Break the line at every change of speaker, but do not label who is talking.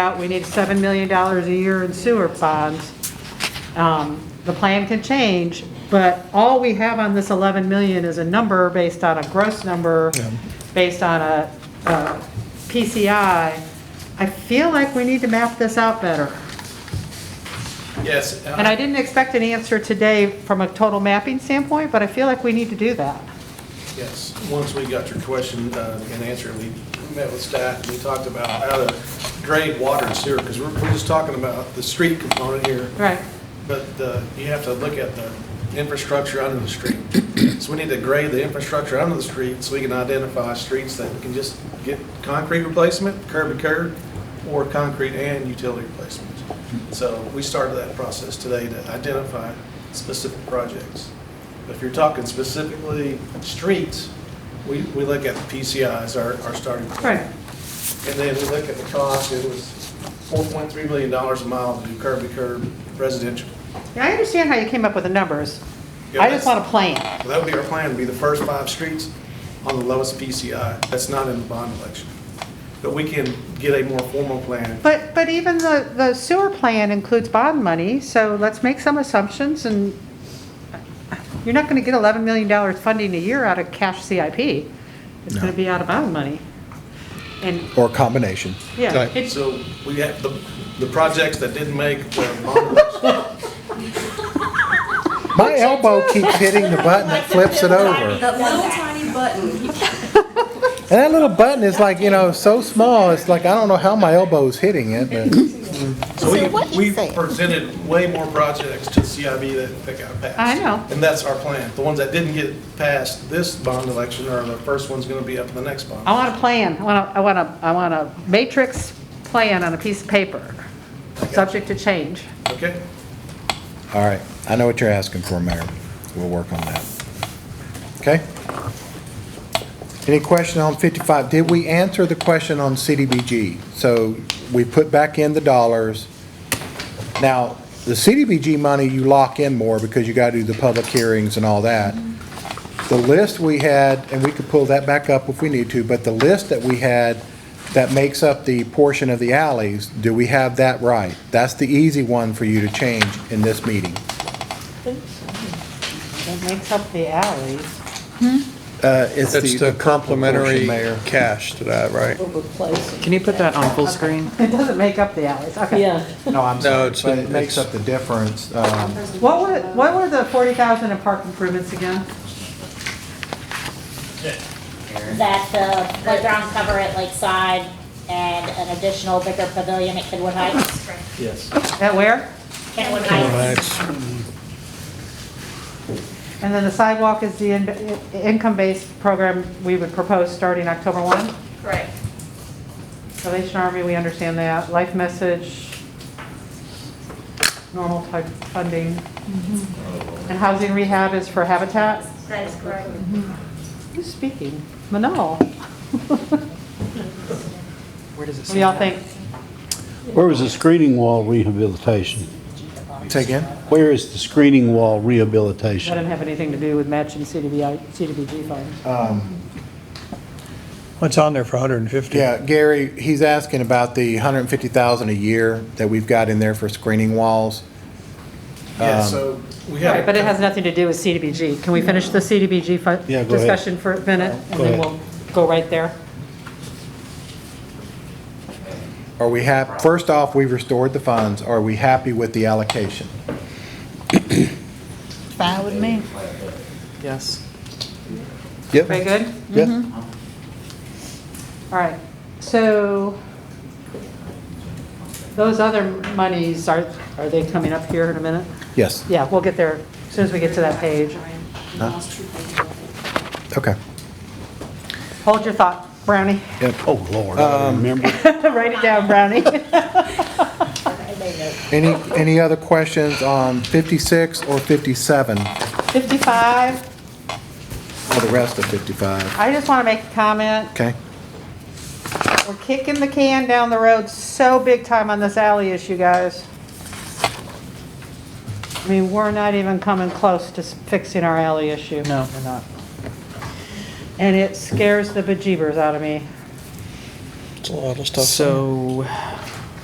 out, we need $7 million a year in sewer bonds. Um, The plan can change, but all we have on this 11 million is a number based on a gross number, based on a a PCI. I feel like we need to map this out better.
Yes,
And
uh,
I didn't expect an answer today from a total mapping standpoint, but I feel like we need to do that.
yes. Once we got your question uh, and answer, we met with staff and we talked about how to grade water and sewer, because we're, we're just talking about the street component here.
Right.
But the, you have to look at the infrastructure under the street. So we need to grade the infrastructure under the street so we can identify streets that can just get concrete replacement, curb to curb, or concrete and utility replacements. So we started that process today to identify specific projects. But if you're talking specifically streets, we, we look at the PCIs, our, our starting point.
Right.
And then we look at the cost, it was $4.3 million a mile to do curb to curb residential.
Yeah, I understand how you came up with the numbers.
Yeah,
I just
that's-
want a plan.
So that would be our plan, be the first five streets on the lowest PCI. That's not in the bond election. But we can get a more formal plan.
But, but even the, the sewer plan includes bond money, so let's make some assumptions and you're not gonna get eleven million dollars funding a year out of cash CIP. It's gonna be out of bond money. And,
Or a combination.
yeah,
Right.
it's,
So we have the, the projects that didn't make the bond election.
My elbow keeps hitting the button that flips it over.
The little tiny button.
And that little button is like, you know, so small, it's like, I don't know how my elbow's hitting it, but
So
what
we,
is
we
it?
presented way more projects to CIB that, that got passed.
I know.
And that's our plan. The ones that didn't get passed this bond election are the first ones gonna be up in the next bond.
I want a plan, I want a, I want a, I want a matrix plan on a piece of paper, subject to change.
Okay?
all right. I know what you're asking for, Mayor. We'll work on that. Okay? Any question on 55? Did we answer the question on CDBG? So we put back in the dollars. Now, the CDBG money, you lock in more because you got to do the public hearings and all that. The list we had, and we could pull that back up if we need to, but the list that we had that makes up the portion of the alleys, do we have that right? That's the easy one for you to change in this meeting.
It makes up the alleys.
Uh, It's
That's the
portion,
complimentary
Mayor.
cash to that, right?
Can you put that on full screen?
It doesn't make up the alleys, okay.
Yeah.
No, I'm
No,
sorry,
it's-
but it makes
it's-
up the difference. um,
What were, what were the forty thousand in park improvements again?
that the playground cover at Lakeside and an additional bigger pavilion at Kenwood Heights.
At where?
Kenwood Heights,
And then the sidewalk is the in- income-based program we would propose starting October 1.
Correct.
Salvation Army, we understand that. Life Message, normal type funding.
Mm-hmm.
And housing rehab is for Habitat.
That is correct.
Who's speaking? Manal.
Where does it
What
say?
do y'all think?
Where was the screening wall rehabilitation?
Say again?
Where is the screening wall
That
rehabilitation?
didn't have anything to do with matching CDBI, CDBG funds.
It's on there for 150.
Yeah, Gary, he's asking about the 150,000 a year that we've got in there for screening walls.
Yeah, so we have.
Right, but it has nothing to do with CDBG. Can we finish the CDBG fu-
Yeah, go ahead.
discussion for a minute? And
Go
then
ahead.
we'll go right there.
Are we hap, first off, we've restored the funds. Are we happy with the allocation?
Fine with me.
Yes.
Very good? Mm-hmm.
Yes.
All right, so those other monies, are, are they coming up here in a minute?
Yes,
Yeah, we'll get there as soon as we get to that page.
okay.
Hold your thought, Brownie.
Oh, Lord, I don't remember.
Write it down, Brownie.
Any, any other questions on 56 or 57, or
55,
the rest of 55?
I just want to make a comment.
Okay,
We're kicking the can down the road so big time on this alley issue, guys. I mean, we're not even coming close to fixing our alley issue.
No, we're not.
And it scares the bejeebers out of me.
It's a lot of stuff.
So